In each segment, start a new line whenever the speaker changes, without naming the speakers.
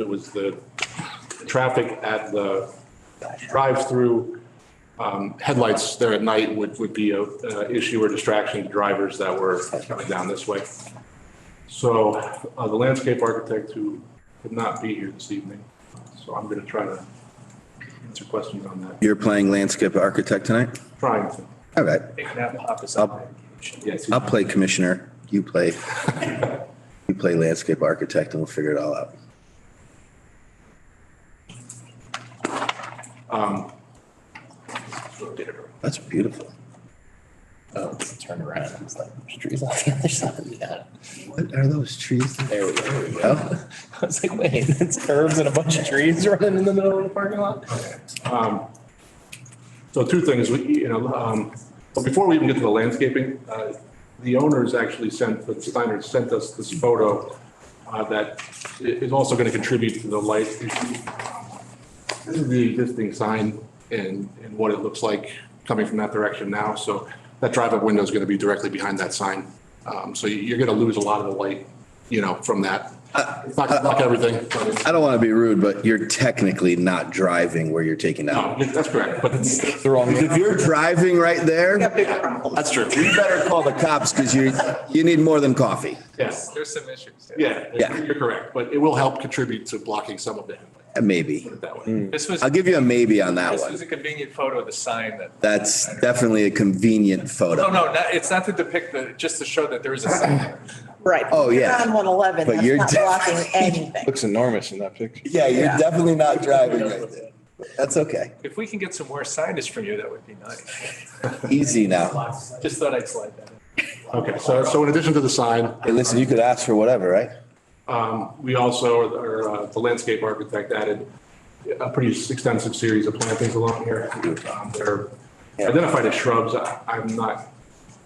It was the traffic at the drive-through um, headlights there at night would, would be a uh, issue or distraction to drivers that were coming down this way. So uh, the landscape architect who could not be here this evening, so I'm going to try to answer questions on that.
You're playing landscape architect tonight?
Trying to,
All right,
Up.
yes.
I'll play commissioner, you play, you play landscape architect and we'll figure it all out. That's beautiful.
Oh, turn around. It's like, there's trees on the other side. Yeah.
What are those trees?
There we go. There we go.
Oh,
I was like, wait, it's curves and a bunch of trees running in the middle of the parking lot?
So two things, we, you know, um, but before we even get to the landscaping, uh, the owners actually sent, the Steiners sent us this photo uh, that i- is also going to contribute to the light issue. This is the existing sign and, and what it looks like coming from that direction now. So that drive-up window is going to be directly behind that sign. Um, So you- you're going to lose a lot of the light, you know, from that. It's not going to block everything, but it's,
I don't want to be rude, but you're technically not driving where you're taking
no,
out.
that's correct, but it's,
The wrong way.
If you're driving right there,
that's true.
you better call the cops because you, you need more than coffee.
Yes.
There's some issues.
Yeah,
Yeah.
you're correct, but it will help contribute to blocking some of the headlight
Uh, Maybe.
that way.
This was,
I'll give you a maybe on that
this
one.
was a convenient photo of the sign that,
That's definitely a convenient
no,
photo.
no, not- it's not to depict the, just to show that there is a sign. there.
Right.
Oh, yeah.
You're On one eleven,
But you're
that's not blocking anything.
Looks enormous in that picture.
Yeah, you're
Yeah.
definitely not driving right there. That's okay.
If we can get some more signage from you, that would be nice.
Easy now.
Just thought I'd slide that in.
Okay, so, so in addition to the sign,
Hey, listen, you could ask for whatever, right?
we also, or uh, the landscape architect added a pretty extensive series of plantings along here. Um, They're identified as shrubs. I- I'm not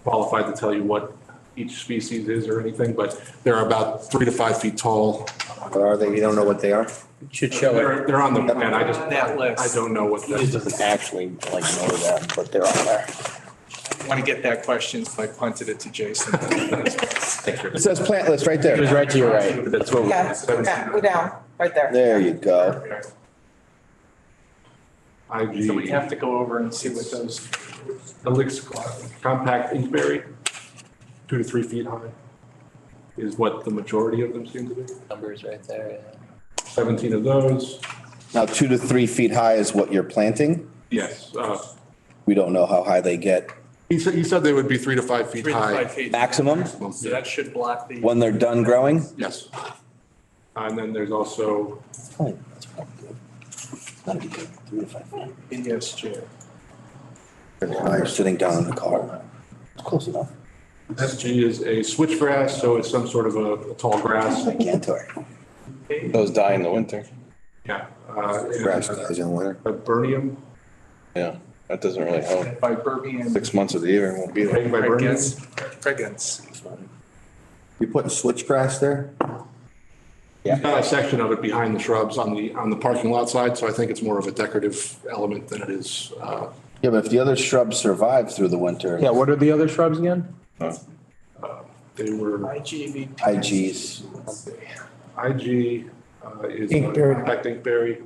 qualified to tell you what each species is or anything, but they're about three to five feet tall.
Or are they, you don't know what they are?
Should show it.
They're, they're on the plan. I just,
On that list.
I don't know what
It
that,
doesn't actually like know that, but they're on there.
Want to get that question, so I punted it to Jason.
It says plantless right there.
It was right to your right.
that's what. we-
Yeah, yeah, go down, right there.
There you go.
IG.
So we have to go over and see what those,
Elix compact inkberry, two to three feet high, is what the majority of them seem to be.
Numbers right there.
Seventeen of those,
Now, two to three feet high is what you're planting.
yes. uh,
We don't know how high they get
He said, he said they would be three to five feet
three to five
high.
feet.
maximum
So that should block the.
when they're done growing.
Yes. And then there's also,
That's probably good. That'd be good. Three to five.
Yes, Chair.
They're sitting down in the car. Close enough.
SG is a switchgrass, so it's some sort of a a tall grass.
Cantor.
Those die in the winter.
Yeah. uh, and
in winter.
A burnium,
Yeah, that doesn't really help.
By Burbian.
Six months of Oh. the year it won't be there.
made by burnium.
Pregnance.
You putting switchgrass there?
He's got a section of it behind the shrubs on the, on the parking lot side, so I think it's more of a decorative element than it is uh,
Yeah, but if the other shrubs survive through the winter.
Yeah, what are the other shrubs again?
No.
uh, They were,
IGV.
IGs.
IG uh, is
Inkberry.
compact inkberry.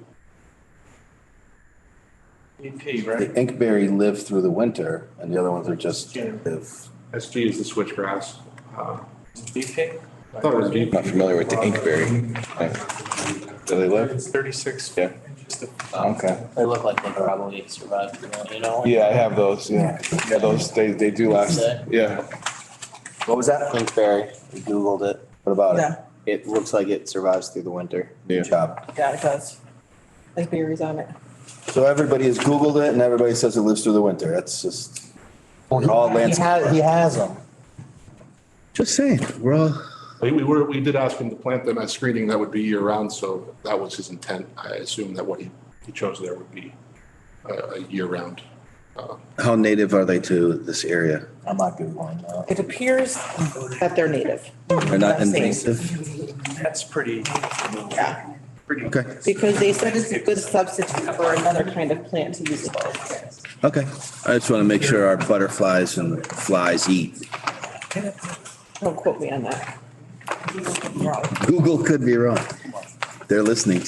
EP,
The
right?
inkberry live through the winter and the other ones are just
Yeah.
live.
SG is the switchgrass. Uh,
EP?
I thought it was deep.
Not familiar with the inkberry. Do they live?
It's Thirty-six.
Yeah.
Just a-
Okay.
They look like they probably survived, you know?
Yeah, I have those, yeah. Yeah, those, they, they do last. Yeah.
What was that? Linkberry. We Googled it.
What about it?
Yeah,
It looks like it survives through the winter.
Yeah.
Good job.
yeah, it does. There's berries on it.
So everybody has Googled it and everybody says it lives through the winter. That's just, we're all landscape.
He has them.
Just saying, we're all.
We we were, we did ask him to plant them as screening, that would be year-round, so that was his intent. I assume that what he, he chose there would be uh, a year-round.
How native are they to this area?
I'm not Googling that.
It appears that they're native.
They're not
That's safe.
invasive?
That's pretty,
Yeah,
pretty.
Okay,
because they said it's a good substitute for another kind of plant to use.
okay. I just want to make sure our butterflies and flies eat.
Don't quote me on that.
Google could be wrong. They're listening.